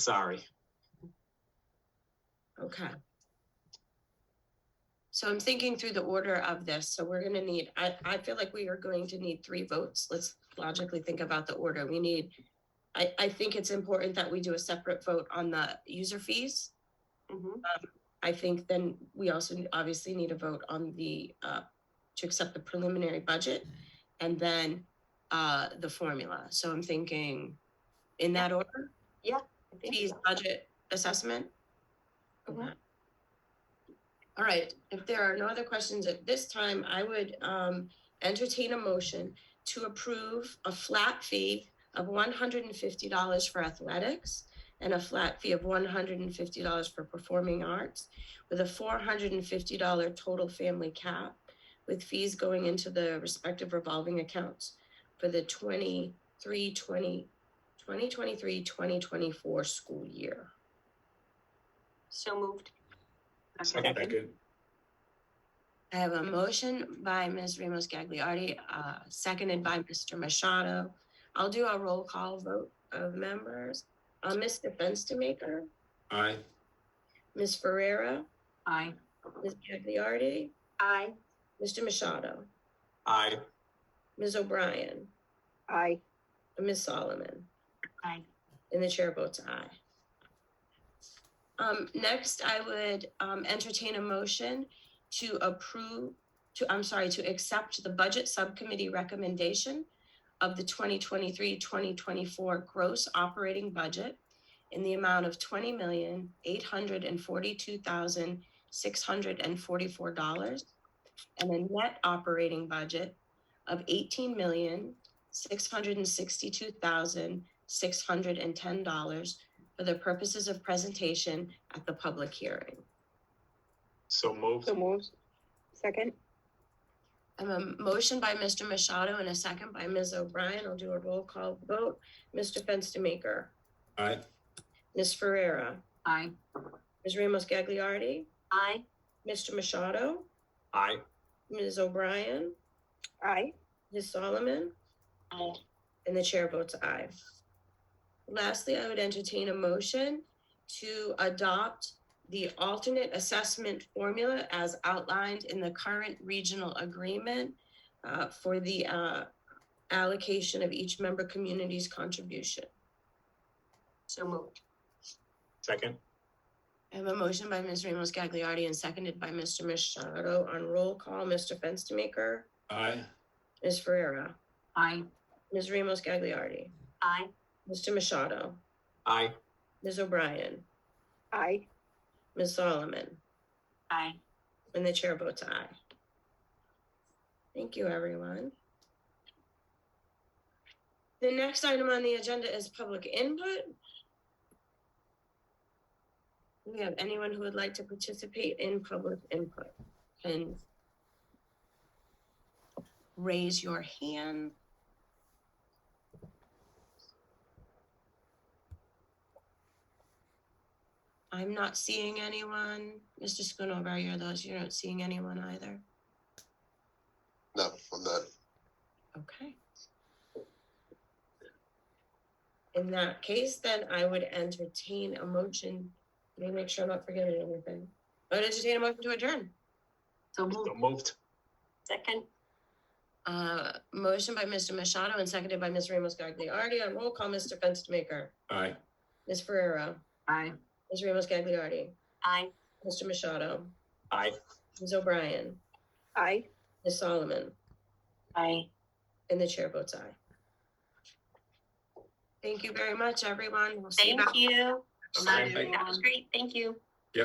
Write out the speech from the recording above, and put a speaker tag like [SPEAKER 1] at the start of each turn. [SPEAKER 1] Sorry.
[SPEAKER 2] Okay. So I'm thinking through the order of this, so we're gonna need, I, I feel like we are going to need three votes. Let's logically think about the order. We need, I, I think it's important that we do a separate vote on the user fees.
[SPEAKER 3] Mm-hmm.
[SPEAKER 2] I think then we also n- obviously need a vote on the, uh, to accept the preliminary budget and then, uh, the formula. So I'm thinking in that order,
[SPEAKER 3] I think
[SPEAKER 2] fees,
[SPEAKER 3] so.
[SPEAKER 2] budget, assessment.
[SPEAKER 3] Mhm.
[SPEAKER 2] Okay. All right, if there are no other questions at this time, I would, um, entertain a motion to approve a flat fee of one hundred and fifty dollars for athletics and a flat fee of one hundred and fifty dollars for performing arts with a four hundred and fifty dollar total family cap with fees going into the respective revolving accounts for the 23 20 2023 2024 school year.
[SPEAKER 3] So moved.
[SPEAKER 1] Second.
[SPEAKER 2] I have a motion by Ms. Ramos Gagliardi, uh, seconded by Mr. Machado. I'll do a roll call vote of members. Uh, Mr. Fenstermaker,
[SPEAKER 1] Aye.
[SPEAKER 2] Ms. Ferrera,
[SPEAKER 3] Aye.
[SPEAKER 2] Ms. Gagliardi,
[SPEAKER 3] Aye.
[SPEAKER 2] Mr. Machado,
[SPEAKER 1] Aye.
[SPEAKER 2] Ms. O'Brien,
[SPEAKER 3] Aye.
[SPEAKER 2] and Ms. Solomon.
[SPEAKER 3] Aye.
[SPEAKER 2] And the chair votes aye. Um, next, I would, um, entertain a motion to approve, to, I'm sorry, to accept the budget subcommittee recommendation of the 2023-2024 gross operating budget in the amount of twenty million, eight hundred and forty-two thousand, six hundred and forty-four dollars and a net operating budget of eighteen million, six hundred and sixty-two thousand, six hundred and ten dollars for the purposes of presentation at the public hearing.
[SPEAKER 1] So moved.
[SPEAKER 4] So moved. Second?
[SPEAKER 2] I have a motion by Mr. Machado and a second by Ms. O'Brien. I'll do a roll call vote. Mr. Fenstermaker,
[SPEAKER 1] Aye.
[SPEAKER 2] Ms. Ferrera,
[SPEAKER 3] Aye.
[SPEAKER 2] Ms. Ramos Gagliardi,
[SPEAKER 3] Aye.
[SPEAKER 2] Mr. Machado,
[SPEAKER 1] Aye.
[SPEAKER 2] Ms. O'Brien,
[SPEAKER 4] Aye.
[SPEAKER 2] Ms. Solomon,
[SPEAKER 3] Aye.
[SPEAKER 2] and the chair votes aye. Lastly, I would entertain a motion to adopt the alternate assessment formula as outlined in the current regional agreement uh, for the uh, allocation of each member community's contribution.
[SPEAKER 3] So moved.
[SPEAKER 1] Second.
[SPEAKER 2] I have a motion by Ms. Ramos Gagliardi and seconded by Mr. Machado on roll call. Mr. Fenstermaker,
[SPEAKER 1] Aye.
[SPEAKER 2] Ms. Ferrera,
[SPEAKER 3] Aye.
[SPEAKER 2] Ms. Ramos Gagliardi,
[SPEAKER 3] Aye.
[SPEAKER 2] Mr. Machado,
[SPEAKER 1] Aye.
[SPEAKER 2] Ms. O'Brien,
[SPEAKER 4] Aye.
[SPEAKER 2] Ms. Solomon.
[SPEAKER 3] Aye.
[SPEAKER 2] And the chair votes aye. Thank you, everyone. The next item on the agenda is public input. Do we have anyone who would like to participate in public input? Can raise your hand. I'm not seeing anyone. Mr. Schoonover, you're those, you're not seeing anyone either.
[SPEAKER 5] No, I'm not.
[SPEAKER 2] Okay. In that case, then I would entertain a motion. Let me make sure I'm not forgetting anything. I would entertain a motion to adjourn.
[SPEAKER 3] So
[SPEAKER 1] So
[SPEAKER 3] moved.
[SPEAKER 1] moved.
[SPEAKER 3] Second.
[SPEAKER 2] Uh, motion by Mr. Machado and seconded by Ms. Ramos Gagliardi. On roll call, Mr. Fenstermaker,
[SPEAKER 1] Aye.
[SPEAKER 2] Ms. Ferrero,
[SPEAKER 3] Aye.
[SPEAKER 2] Ms. Ramos Gagliardi,
[SPEAKER 3] Aye.
[SPEAKER 2] Mr. Machado,
[SPEAKER 1] Aye.
[SPEAKER 2] Ms. O'Brien,
[SPEAKER 4] Aye.
[SPEAKER 2] Ms. Solomon,
[SPEAKER 3] Aye.
[SPEAKER 2] and the chair votes aye. Thank you very much, everyone. We'll see you back.
[SPEAKER 3] you.
[SPEAKER 1] Aye.
[SPEAKER 3] That was great. Thank you.